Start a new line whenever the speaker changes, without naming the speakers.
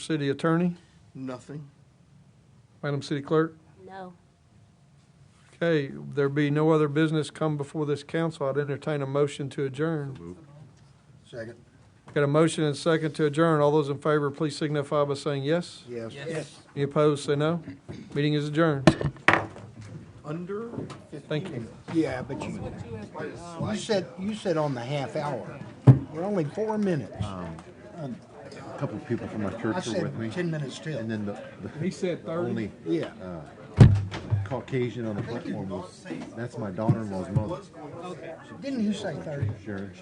City Attorney,
Nothing.
Madam City Clerk.
No.
Okay, there be no other business come before this council, I'd entertain a motion to adjourn.
Second.
Got a motion and second to adjourn. All those in favor, please signify by saying yes.
Yes. Yes.
Any opposed, say no. Meeting is adjourned.
Under
Thank you.
Yeah, but you, you said, you said on the half hour. We're only four minutes.
A couple of people from my
I
church were
said
Uh, with me,
ten minutes
and
till.
then the, the
He said
only
Yeah.
Caucasian on the platform was that's my daughter-in-law's mother,
Didn't you say thirty?
Sharon.